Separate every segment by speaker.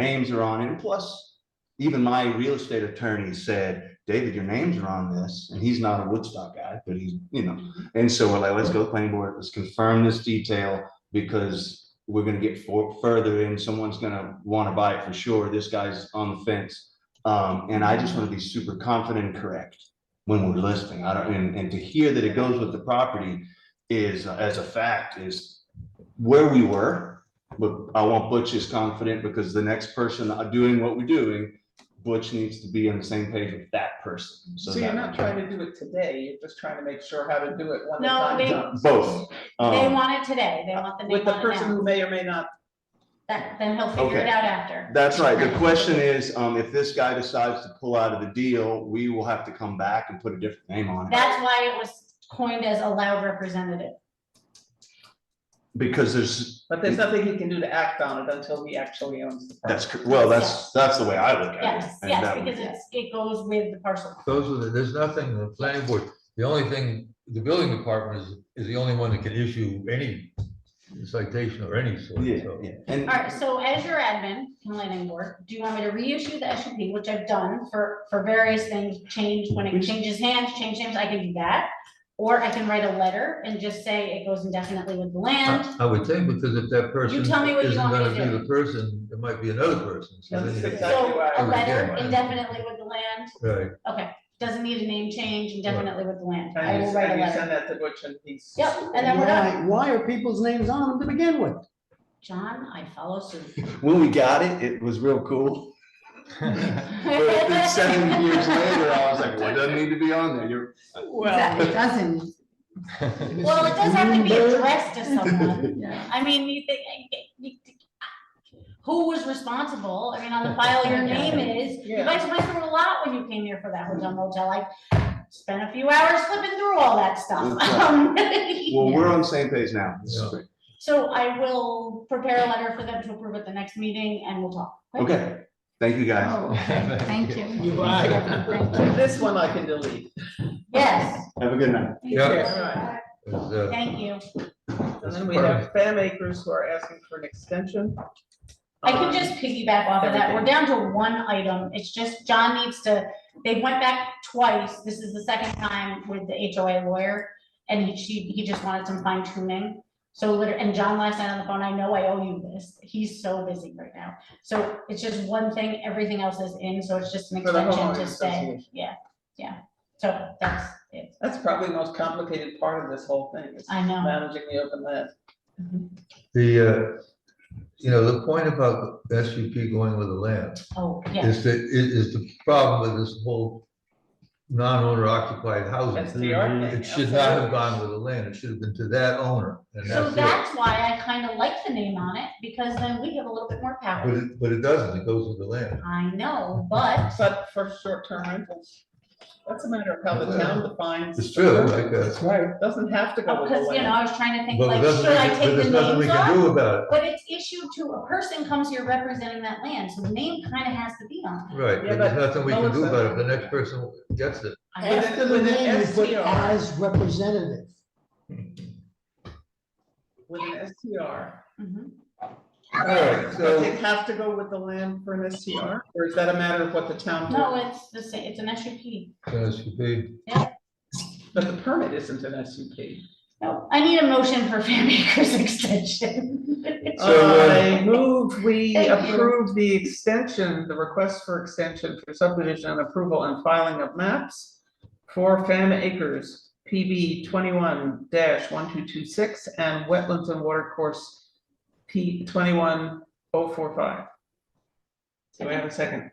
Speaker 1: names are on it. And plus, even my real estate attorney said, David, your names are on this. And he's not a Woodstock guy, but he's, you know, and so we're like, let's go to the planning board, let's confirm this detail because we're gonna get for, further and someone's gonna wanna buy it for sure. This guy's on the fence. Um, and I just wanna be super confident and correct when we're listing. I don't, and, and to hear that it goes with the property is, uh, as a fact, is where we were but I want Butch is confident because the next person doing what we're doing, Butch needs to be on the same page with that person.
Speaker 2: So you're
Speaker 1: that-
Speaker 2: not trying to do it today, you're just trying to make sure how to do it when the
Speaker 3: No,
Speaker 2: time
Speaker 3: they-
Speaker 2: comes.
Speaker 1: Both.
Speaker 3: They
Speaker 1: Um,
Speaker 3: want it today, they want the
Speaker 2: With
Speaker 3: name
Speaker 2: the
Speaker 3: on it
Speaker 2: person
Speaker 3: now,
Speaker 2: who may or may not,
Speaker 3: then, then he'll figure it
Speaker 1: Okay.
Speaker 3: out after.
Speaker 1: That's right. The question is, um, if this guy decides to pull out of the deal, we will have to come back and put a different name on it.
Speaker 3: That's why it was coined as allowed representative.
Speaker 1: Because there's,
Speaker 2: but there's nothing he can do to act on it until he actually owns the property.
Speaker 1: that's, cor- well, that's, that's the way I look at it.
Speaker 3: Yes,
Speaker 1: And
Speaker 3: yes,
Speaker 1: that would-
Speaker 3: because it's, it goes with the parcel.
Speaker 4: Those are the, there's nothing, the planning board, the only thing, the building department is, is the only one that can issue any citation or any sort,
Speaker 1: Yeah,
Speaker 4: so.
Speaker 1: yeah. And
Speaker 3: All right, so as your admin, and planning board, do you want me to reissue the S U P, which I've done for, for various things, change, when it changes hands, change names, I can do that. Or I can write a letter and just say it goes indefinitely with the land.
Speaker 4: I I would think, because if that person isn't
Speaker 3: tell me what you want me to
Speaker 4: gonna be
Speaker 3: do.
Speaker 4: the person, it might be another person. so
Speaker 2: That's
Speaker 4: then you-
Speaker 2: exactly-
Speaker 3: So a
Speaker 2: right.
Speaker 3: letter
Speaker 4: Yeah.
Speaker 3: indefinitely with the land,
Speaker 4: Right,
Speaker 3: doesn't need a name change, indefinitely with the land. I
Speaker 2: And
Speaker 3: will
Speaker 2: you,
Speaker 3: write
Speaker 2: and
Speaker 3: a
Speaker 2: you
Speaker 3: letter.
Speaker 2: send that to Butch and he's.
Speaker 3: Yep, and then we're done.
Speaker 5: Why, why are people's names on them to begin with?
Speaker 3: John, I follow suit.
Speaker 1: when we got it, it was real cool. But then seven years later, I was like, well, it doesn't need to be on there. You're,
Speaker 5: Well. It doesn't.
Speaker 3: Well, it does have to be addressed to someone.
Speaker 5: Yeah.
Speaker 3: I mean, you think, you think- who was responsible? I mean, on the file, your name is. You guys went through a lot when you came here for that hotel motel. I spent a few hours flipping through all that stuff.
Speaker 1: That's
Speaker 3: Um,
Speaker 1: well, we're on the same page now. This is
Speaker 4: Yeah.
Speaker 1: great.
Speaker 3: So I will prepare a letter for them to approve at the next meeting and we'll talk.
Speaker 1: Okay. Thank you, guys.
Speaker 5: Oh, thank you.
Speaker 2: This one I can delete.
Speaker 3: Yes,
Speaker 1: Have a good night.
Speaker 4: Yeah.
Speaker 2: All right.
Speaker 4: It's, uh,
Speaker 3: thank you.
Speaker 2: And then we have Fam Acres who are asking for an extension. Um,
Speaker 3: I can just piggyback off of that. We're down to one item. It's just John needs to, they went back twice. This is the second time with the HOA lawyer. And he, she, he just wanted some fine tuning. So liter, and John last night on the phone, I know I owe you this. He's so busy right now. So it's just one thing, everything else is in, so it's just an
Speaker 2: For the
Speaker 3: extension to
Speaker 2: homeowners
Speaker 3: stay.
Speaker 2: association.
Speaker 3: Yeah, yeah. So that's it.
Speaker 2: That's probably the most complicated part of this whole thing is
Speaker 3: I know.
Speaker 2: managing the open land.
Speaker 4: The, uh, you know, the point about the SUP going with the land
Speaker 3: Oh, yeah.
Speaker 4: is that, is, is the problem with this whole non-owner occupied housing.
Speaker 2: That's the art thing.
Speaker 4: It should not
Speaker 2: absolutely.
Speaker 4: have gone with the land, it should have been to that owner, and
Speaker 3: So
Speaker 4: that's it.
Speaker 3: that's why I kind of like the name on it, because then we have a little bit more
Speaker 4: But
Speaker 3: power.
Speaker 4: it, but it doesn't, it goes with the land.
Speaker 3: I know, but
Speaker 2: But for short-term rentals, that's a matter of how the town defines.
Speaker 4: It's true, like, uh,
Speaker 2: right. Doesn't have to go with the
Speaker 3: Because, you know,
Speaker 2: land.
Speaker 3: I was trying to think,
Speaker 4: but
Speaker 3: like,
Speaker 4: it doesn't,
Speaker 3: should I
Speaker 4: make it- but
Speaker 3: take the
Speaker 4: there's nothing we
Speaker 3: names
Speaker 4: can
Speaker 3: off?
Speaker 4: do about
Speaker 3: But it's issued to, a person comes here representing that land, so the name kind of has to be on.
Speaker 4: it, right,
Speaker 2: Yeah,
Speaker 4: but there's
Speaker 2: but
Speaker 4: nothing we can do
Speaker 2: Melissa-
Speaker 4: about it, if the next person gets it.
Speaker 3: I
Speaker 2: Yeah.
Speaker 5: After the
Speaker 2: With an
Speaker 5: name, you put
Speaker 2: STR.
Speaker 5: as representative.
Speaker 2: With an STR.
Speaker 3: Mhm.
Speaker 4: All right,
Speaker 2: Does it
Speaker 4: so,
Speaker 2: have to go with the land for an STR, or is that a matter of what the town?
Speaker 3: No,
Speaker 2: does?
Speaker 3: it's the same, it's an SUP.
Speaker 4: SUP,
Speaker 2: But the permit isn't an SUP.
Speaker 3: No, I need a motion for Fair Acres extension.
Speaker 4: So, uh,
Speaker 2: I move, we
Speaker 3: Thank you.
Speaker 2: approve the extension, the request for extension for subdivision approval and filing of maps for Fam Acres, PB twenty-one one two two six and Wetlands and Water Course, P twenty-one oh four five. Do I have a second?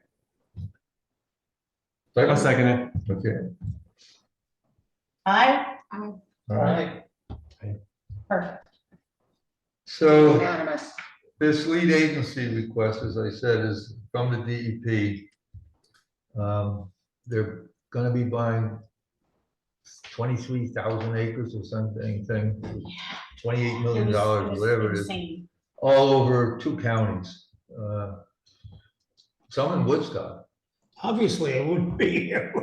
Speaker 4: second?
Speaker 6: second it.
Speaker 4: okay,
Speaker 3: I,
Speaker 4: all right.
Speaker 3: perfect.
Speaker 4: So,
Speaker 2: Unanimous.
Speaker 4: This lead agency request, as I said, is from the DEP. Um, They're gonna be buying twenty-three thousand acres or something, thing, twenty-eight
Speaker 3: It
Speaker 4: million
Speaker 3: was-
Speaker 4: dollars,
Speaker 3: was
Speaker 4: whatever it is,
Speaker 3: insane.
Speaker 4: all over two counties. uh, Some in Woodstock.
Speaker 5: Obviously, it wouldn't be here.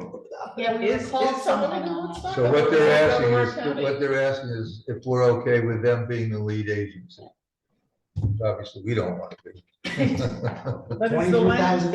Speaker 3: Yeah, we
Speaker 2: Is, is
Speaker 3: recalled
Speaker 2: someone
Speaker 3: something
Speaker 2: in
Speaker 3: on it.
Speaker 2: Woodstock?
Speaker 4: So what they're
Speaker 2: Is
Speaker 4: asking
Speaker 2: someone in
Speaker 4: is,
Speaker 2: County?
Speaker 4: what they're asking is if we're okay with them being the lead agency. Obviously, we don't want to be.
Speaker 7: Right.
Speaker 4: But it's the
Speaker 2: Twenty-two
Speaker 4: land,
Speaker 2: thousand